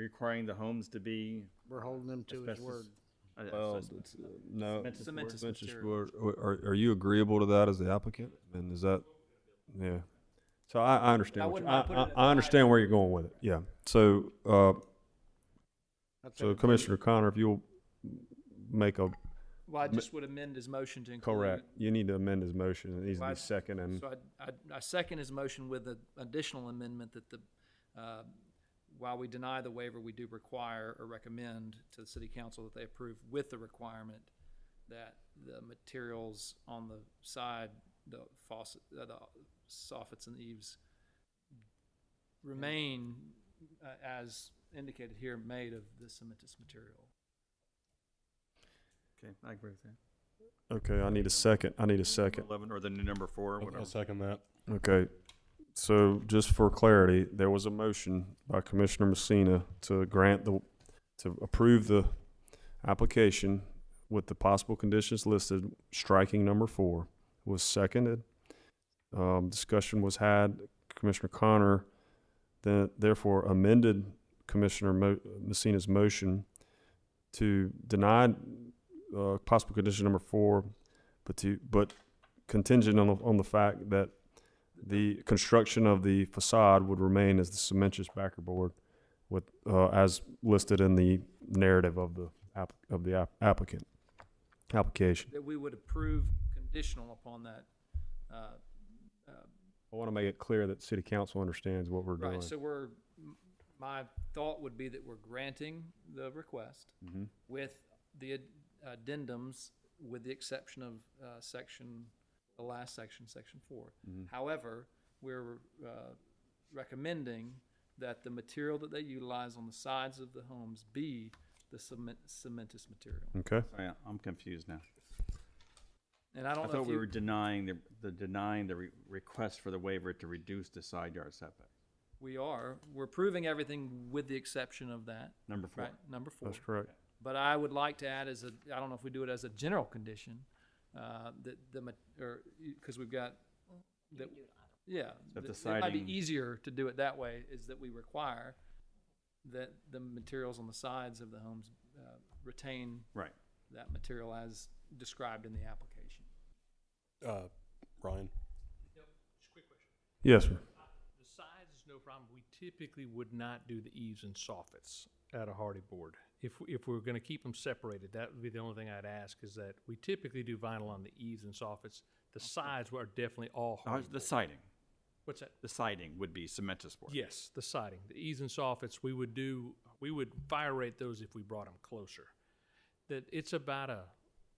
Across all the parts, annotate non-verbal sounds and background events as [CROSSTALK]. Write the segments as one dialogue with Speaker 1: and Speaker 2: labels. Speaker 1: requiring the homes to be
Speaker 2: We're holding him to his
Speaker 1: asbestos?
Speaker 2: word.
Speaker 1: uh,
Speaker 3: Well,
Speaker 1: asbestos-
Speaker 3: it's, uh, no.
Speaker 1: cementous board.
Speaker 3: cementous board. Are- Are, are you agreeable to that as the applicant? And is that, yeah. So I, I
Speaker 4: I
Speaker 3: understand, what you-
Speaker 4: wouldn't
Speaker 3: I,
Speaker 4: mind putting it
Speaker 3: I,
Speaker 4: at the
Speaker 3: I understand where you're going with it, yeah. So, uh,
Speaker 2: That's
Speaker 3: so
Speaker 2: it.
Speaker 3: Commissioner Connor, if you'll make a,
Speaker 4: Well,
Speaker 3: Ma-
Speaker 4: I just would amend his motion to include.
Speaker 3: correct, you need to amend his motion, it needs to
Speaker 4: Well, I-
Speaker 3: be second and,
Speaker 4: So I, I, I second his motion with an additional amendment that the, uh, while we deny the waiver, we do require or recommend to the city council that they approve with the requirement that the materials on the side, the faucet, uh, the soffits and eaves remain uh, as indicated here, made of the cementous material.
Speaker 1: Okay, I agree with that.
Speaker 3: okay, I need a second, I need a second.
Speaker 1: Eleven or the new number four, whatever.
Speaker 5: I'll second that.
Speaker 3: Okay, so just for clarity, there was a motion by Commissioner Messina to grant the, to approve the application with the possible conditions listed, striking number four was seconded. Um, discussion was had, Commissioner Connor then therefore amended Commissioner Mo- Messina's motion to deny, uh, possible condition number four, but to, but contingent on, the- on the fact that the construction of the facade would remain as the cementous board, with, uh, as listed in the narrative of the app, of the app- applicant, application.
Speaker 4: That we would approve conditional upon that, uh,
Speaker 3: I want to make it clear that city council understands what we're doing.
Speaker 4: Right, so we're, m- my thought would be that we're granting the request
Speaker 1: Mm-hmm.
Speaker 4: with the ad- addendums, with the exception of uh, section, the last section, section four.
Speaker 1: Mm-hmm.
Speaker 4: However, we're uh, recommending that the material that they utilize on the sides of the homes be the cement, cementous material.
Speaker 3: Okay,
Speaker 1: Sorry, I- I'm confused now.
Speaker 4: And
Speaker 1: Mm-hmm.
Speaker 4: I
Speaker 1: I
Speaker 4: don't know
Speaker 1: thought
Speaker 4: if
Speaker 1: we were
Speaker 4: you,
Speaker 1: denying the, the denying the re- request for the waiver to reduce the side yard setback.
Speaker 4: we are, we're approving everything with the exception of that,
Speaker 1: Number four.
Speaker 4: right, number four.
Speaker 3: that's correct.
Speaker 4: But I would like to add as a, I don't know if we do it as a general condition, uh, that the, ma- or, because we've got, that, yeah.
Speaker 1: That the
Speaker 4: th- It might
Speaker 1: siding-
Speaker 4: be easier to do it that way, is that we require that the materials on the sides of the homes uh, retain
Speaker 1: Right.
Speaker 4: that material as described in the application.
Speaker 5: Uh, Ryan?
Speaker 6: Just a quick question.
Speaker 3: Yes, sir.
Speaker 6: The sides is no problem. We typically would not do the eaves and soffits at a hardy board. If, if we're gonna keep them separated, that would be the only thing I'd ask is that we typically do vinyl on the eaves and soffits. The sides are definitely all
Speaker 1: Uh,
Speaker 6: hardy.
Speaker 1: The siding,
Speaker 6: What's that?
Speaker 1: the siding would be cementous board.
Speaker 6: Yes, the siding, the eaves and soffits, we would do, we would fire rate those if we brought them closer. That it's about a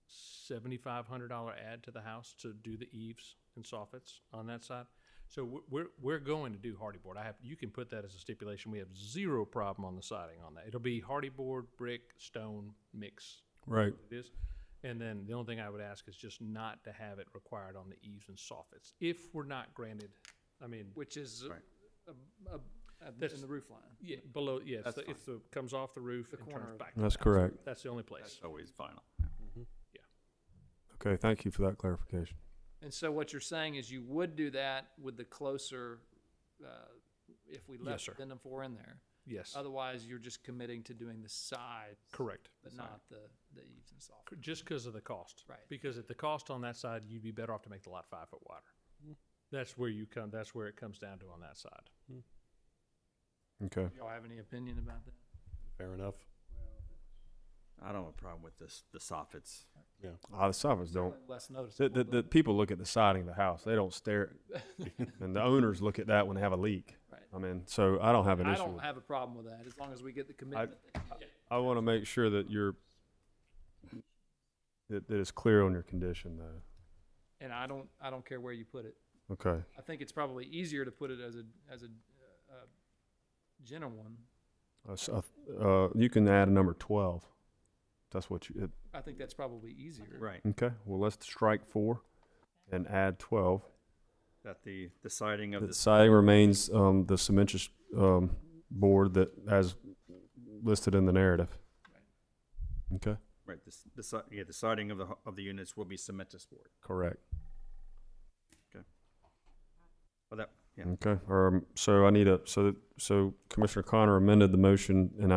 Speaker 6: seventy-five hundred dollar add to the house to do the eaves and soffits on that side. So we're- we're, we're going to do hardy board. I have, you can put that as a stipulation. We have zero problem on the siding on that. It'll be hardy board, brick, stone, mix,
Speaker 3: Right.
Speaker 6: it is. And then the only thing I would ask is just not to have it required on the eaves and soffits. If we're not granted, I mean,
Speaker 4: Which is uh,
Speaker 1: Right.
Speaker 4: ab- ab- ab- in
Speaker 6: That's-
Speaker 4: the roof line.
Speaker 6: yeah, below, yeah, it's
Speaker 1: That's
Speaker 6: the, it's the, comes off the roof
Speaker 4: The
Speaker 6: and
Speaker 4: corner
Speaker 6: turns
Speaker 4: of
Speaker 6: back. to
Speaker 3: That's
Speaker 6: the house.
Speaker 3: correct.
Speaker 6: That's the only place.
Speaker 1: That's always final.
Speaker 3: Okay, thank you for that clarification.
Speaker 4: And so what you're saying is you would do that with the closer, uh, if we left
Speaker 6: sir.
Speaker 4: addendum four in there.
Speaker 6: Yes,
Speaker 4: Otherwise, you're just committing to doing the sides,
Speaker 6: correct.
Speaker 4: but not the, the eaves and soffits.
Speaker 6: C- Just because of the cost.
Speaker 4: Right.
Speaker 6: Because at the cost on that side, you'd be better off to make the lot five foot wider.
Speaker 4: Mm-hmm.
Speaker 6: That's where you come, that's where it comes down to on that side.
Speaker 3: Okay.
Speaker 4: Y'all have any opinion about that?
Speaker 5: Fair enough.
Speaker 1: I don't have a problem with this, the soffits.
Speaker 3: Ah, the soffits don't,
Speaker 4: Less
Speaker 3: the,
Speaker 4: noticeable.
Speaker 3: the, the people look at the siding of the house, they don't stare.
Speaker 4: [LAUGHS]
Speaker 3: And the owners look at that when they have a leak.
Speaker 4: Right.
Speaker 3: I mean, so I don't have
Speaker 4: but
Speaker 3: an
Speaker 4: I
Speaker 3: issue with
Speaker 4: don't have a problem with that, as long as we get the commitment.
Speaker 3: I want to make sure that you're, that, that it's clear on your condition though.
Speaker 4: And I don't, I don't care where you put it.
Speaker 3: Okay,
Speaker 4: I think it's probably easier to put it as a, as a, uh, uh, general one.
Speaker 3: Uh, s- uh, uh, you can add a number twelve. That's what you, it-
Speaker 4: I think that's probably easier.
Speaker 1: Right.
Speaker 3: okay, well, let's strike four and add twelve.
Speaker 1: That the, the siding of
Speaker 3: The
Speaker 1: the
Speaker 3: siding remains, um, the cementous, um, board that, as listed in the narrative. Okay,
Speaker 1: Right, the, s- the, si- yeah, the siding of the, hu- of the units will be cementous board.
Speaker 3: correct.
Speaker 1: Well, that, yeah.
Speaker 3: Okay, um, so I need a, so, so Commissioner Connor amended the motion and